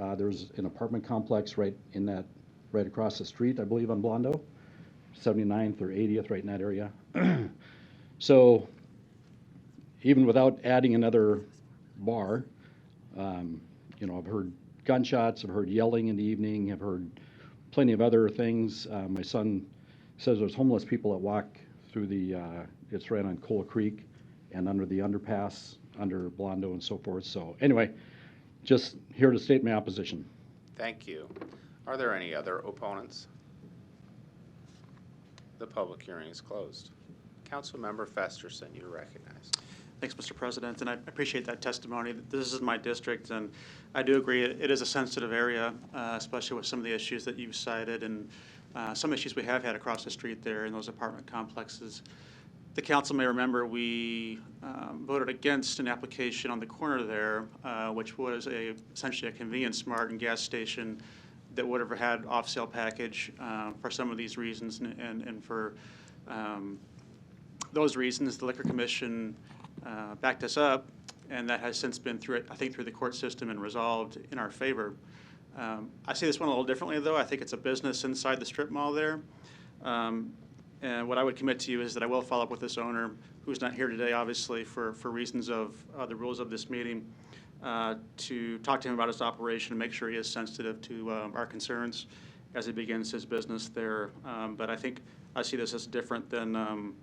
Uh, There's an apartment complex right in that, right across the street, I believe, on Blondo, 79th or 80th, right in that area. So even without adding another bar, um, you know, I've heard gunshots, I've heard yelling in the evening, I've heard plenty of other things. Uh, my son says there's homeless people that walk through the, uh, it's right on Coal Creek and under the underpass, under Blondo and so forth. So anyway, just here to state my opposition. Thank you. Are there any other opponents? The public hearing is closed. Councilmember Festerson, you're recognized. Thanks, Mr. President, and I appreciate that testimony. This is my district, and I do agree, it it is a sensitive area, uh, especially with some of the issues that you've cited and uh, some issues we have had across the street there in those apartment complexes. The council may remember, we um, voted against an application on the corner there, uh, which was a, essentially a convenience mart and gas station that would have had off-sale package uh, for some of these reasons and- and and for um, those reasons, the liquor commission uh, backed us up, and that has since been through, I think, through the court system and resolved in our favor. Um, I see this one a little differently, though. I think it's a business inside the strip mall there. Um, And what I would commit to you is that I will follow up with this owner, who's not here today, obviously, for, for reasons of uh, the rules of this meeting, uh, to talk to him about his operation and make sure he is sensitive to um, our concerns as he begins his business there. Um, But I think, I see this as different than um,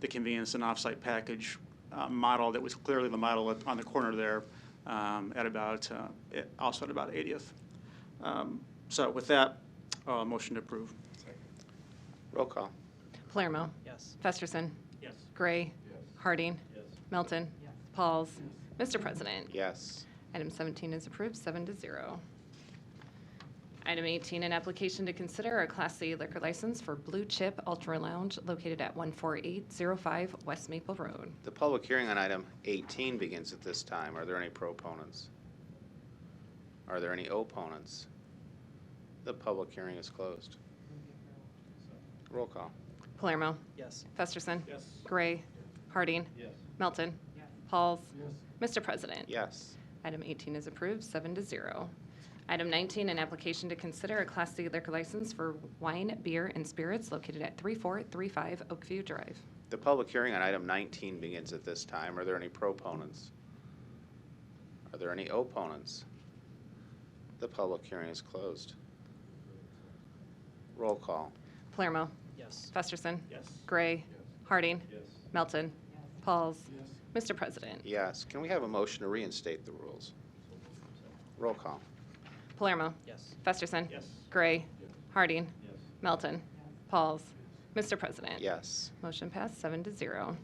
the convenience and off-site package uh, model that was clearly the model at- on the corner there um, at about, uh, it- also at about 80th. Um, So with that, uh, motion to approve. Roll call. Palermo. Yes. Festerson. Yes. Gray. Harding. Yes. Melton. Pauls. Mr. President. Yes. Item 17 is approved, seven to zero. Item 18, an application to consider a Class C liquor license for Blue Chip Ultra Lounge located at 14805 West Maple Road. The public hearing on item 18 begins at this time. Are there any proponents? Are there any opponents? The public hearing is closed. Roll call. Palermo. Yes. Festerson. Yes. Gray. Harding. Yes. Melton. Pauls. Mr. President. Yes. Item 18 is approved, seven to zero. Item 19, an application to consider a Class C liquor license for wine, beer, and spirits located at 3435 Oakview Drive. The public hearing on item 19 begins at this time. Are there any proponents? Are there any opponents? The public hearing is closed. Roll call. Palermo. Yes. Festerson. Yes. Gray. Harding. Yes. Melton. Pauls. Mr. President. Yes. Can we have a motion to reinstate the rules? Roll call. Palermo. Yes. Festerson. Yes. Gray. Harding. Yes. Melton. Pauls. Mr. President. Yes. Motion passed, seven to zero.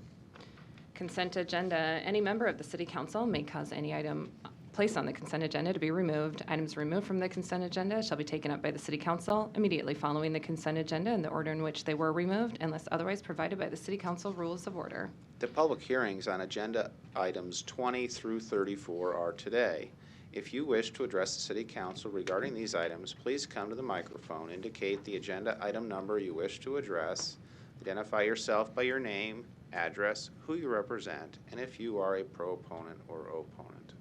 Consent agenda, any member of the city council may cause any item placed on the consent agenda to be removed. Items removed from the consent agenda shall be taken up by the city council immediately following the consent agenda in the order in which they were removed unless otherwise provided by the city council rules of order. The public hearings on agenda items 20 through 34 are today. If you wish to address the city council regarding these items, please come to the microphone, indicate the agenda item number you wish to address, identify yourself by your name, address, who you represent, and if you are a proponent or opponent.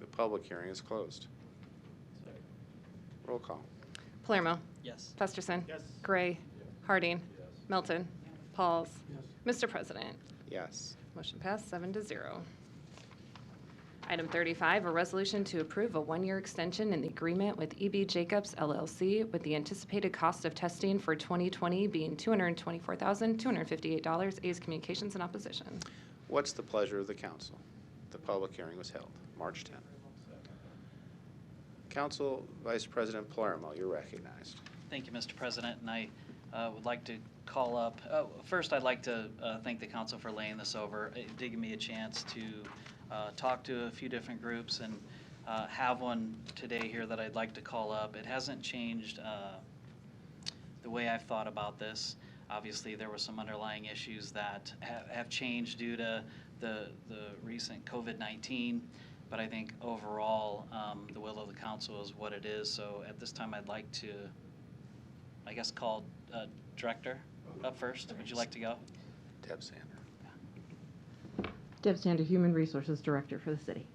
The public hearing is closed. Roll call. Palermo. Yes. Festerson. Yes. Gray. Harding. Melton. Pauls. Mr. President. Yes. Motion passed, seven to zero. Item 35, a resolution to approve a one-year extension in the agreement with EB Jacobs LLC with the anticipated cost of testing for 2020 being $224,258. A's Communications in opposition. What's the pleasure of the council? The public hearing was held March 10th. Council Vice President Palermo, you're recognized. Thank you, Mr. President, and I uh, would like to call up, oh, first, I'd like to uh, thank the council for laying this over, uh, giving me a chance to uh, talk to a few different groups and uh, have one today here that I'd like to call up. It hasn't changed uh, the way I've thought about this. Obviously, there were some underlying issues that ha- have changed due to the, the recent COVID-19, but I think overall, um, the will of the council is what it is. So at this time, I'd like to, I guess, call uh, Director up first. Would you like to go? Deb Sander. Deb Sander, Human Resources Director for the city.